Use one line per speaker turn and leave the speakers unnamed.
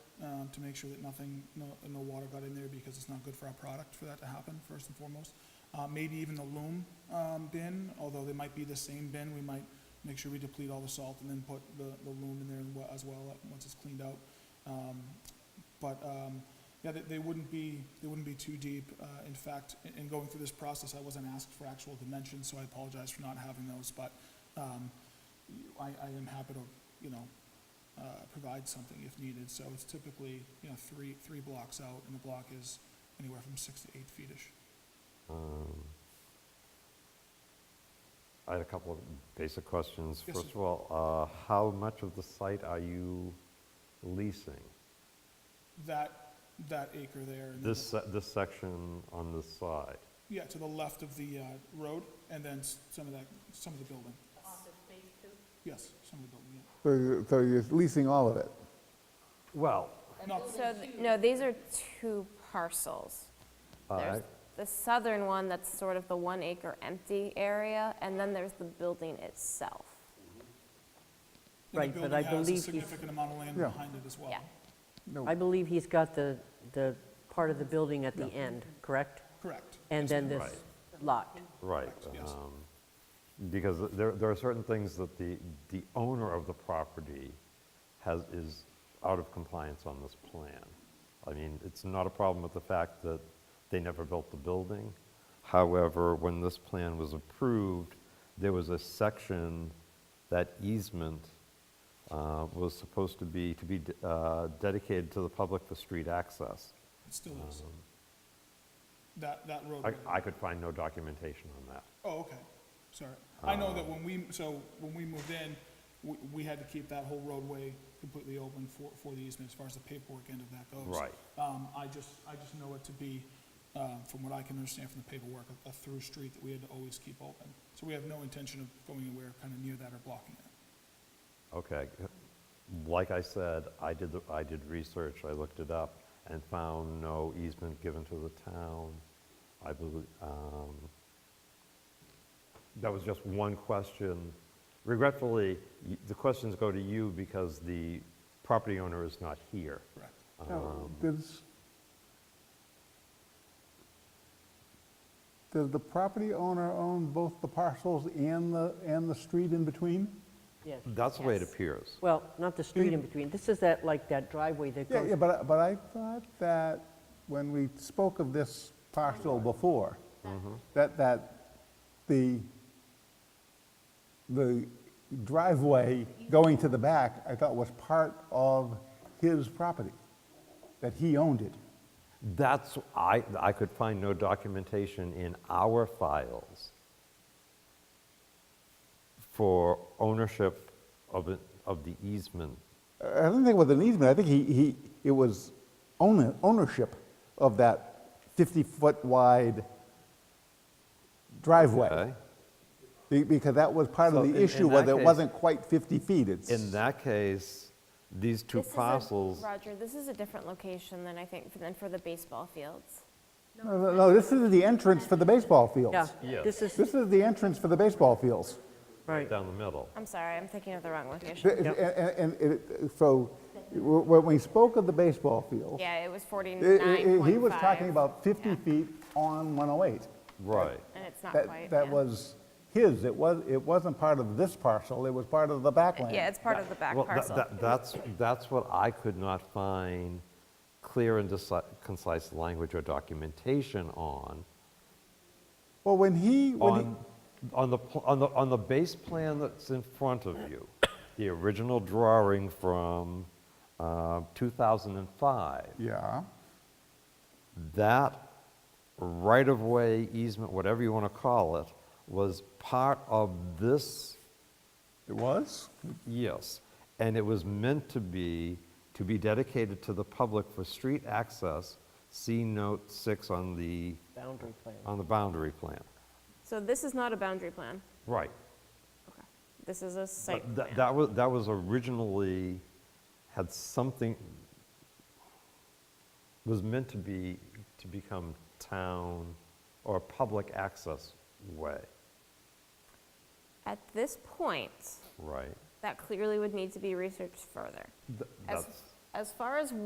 um, to make sure that nothing, no, no water got in there because it's not good for our product for that to happen, first and foremost. Uh, maybe even the loom, um, bin, although they might be the same bin, we might make sure we deplete all the salt and then put the, the loom in there wa- as well, uh, once it's cleaned out. Um, but, um, yeah, they, they wouldn't be, they wouldn't be too deep. Uh, in fact, in, in going through this process, I wasn't asked for actual dimensions, so I apologize for not having those, but, um, I, I am happy to, you know, uh, provide something if needed. So it's typically, you know, three, three blocks out, and the block is anywhere from six to eight feetish.
Um, I had a couple of basic questions.
Yes,
First
sir.
of all, uh, how much of the site are you leasing?
That, that acre there. and then
This, se- this section on this side?
the- Yeah, to the left of the uh, road, and then s- some of that, some of the building. Yes, some of the building, yeah.
So you- so you're leasing all of it?
Well,
Not,
So, th- no, these are two parcels.
all
There's
right.
the southern one, that's sort of the one acre empty area, and then there's the building itself.
and
Right,
the
but
building
I
has a
believe he's-
significant amount of land
Yeah.
behind it as well.
Yeah,
No.
I believe he's got the, the part of the building at the end, correct?
Correct.
And then this
Right.
lot.
Right.
Correct, yes.
um, Because there, there are certain things that the, the owner of the property has, is out of compliance on this plan. I mean, it's not a problem with the fact that they never built the building. However, when this plan was approved, there was a section that easement uh, was supposed to be, to be de- uh, dedicated to the public for street access.
It still is. That, that road.
um, I, I could find no documentation on that.
Oh, okay, sorry. I know that when we, so when we moved in, we, we had to keep that whole roadway completely open for, for the easement as far as the paperwork end of that goes.
Right.
Um, I just, I just know it to be, uh, from what I can understand from the paperwork, a, a through street that we had to always keep open. So we have no intention of going anywhere kind of near that or blocking it.
Okay. Like I said, I did, the- I did research, I looked it up, and found no easement given to the town. I believe, um, that was just one question. Regretfully, y- the questions go to you because the property owner is not here.
Correct.
Now, Does, does the property owner own both the parcels and the, and the street in between?
Yes.
That's the way it
Yes.
appears.
Well, not the street in between. This is that, like, that driveway that
Yeah, yeah,
goes,
but, I- but I thought that when we spoke of this parcel before, that, that the, the driveway going to the back, I thought was part of his property, that he owned it.
That's, I, I could find no documentation in our files for ownership of, it- of the easement.
I don't think it was an easement, I think he, he, it was owner, ownership of that 50-foot wide driveway.
Okay?
Be- Because that was part
So
of
in-
the
in
issue, was
that
it
case-
wasn't quite 50 feet, it's.
In that case, these two
This is a-
parcels,
Roger, this is a different location than I think, than for the baseball fields.
No, no, no, this is the entrance for the baseball
yeah.
fields.
Yeah.
This is,
This is the entrance for the baseball fields.
right.
down the middle.
I'm sorry, I'm thinking of the wrong location.
Th- And, and- and it- so, w- when we spoke of the baseball field,
Yeah, it was
i- i-
49.5.
he was talking about 50
Yeah.
feet on 108.
Right.
And it's not quite,
That, that
yeah.
was his, it was, it wasn't part of this parcel, it was part of the backland.
Yeah, it's part of the back
Well, tha-
parcel.
tha- That's, that's what I could not find clear and deci- concise language or documentation on.
Well, when he, when he,
on, on the, pl- on the, on the base plan that's in front of you, the original drawing from uh, 2005,
yeah,
that right-of-way easement, whatever you want to call it, was part of this,
it was?
yes, and it was meant to be, to be dedicated to the public for street access, see note six on the,
Boundary plan.
on the boundary plan.
So this is not a boundary plan.
Right.
Okay. This is a site
But
plan.
that, that was, that was originally, had something, was meant to be, to become town or public access way,
At this point,
right?
that clearly would need to be researched further.
Th-
As,
that's-
as far as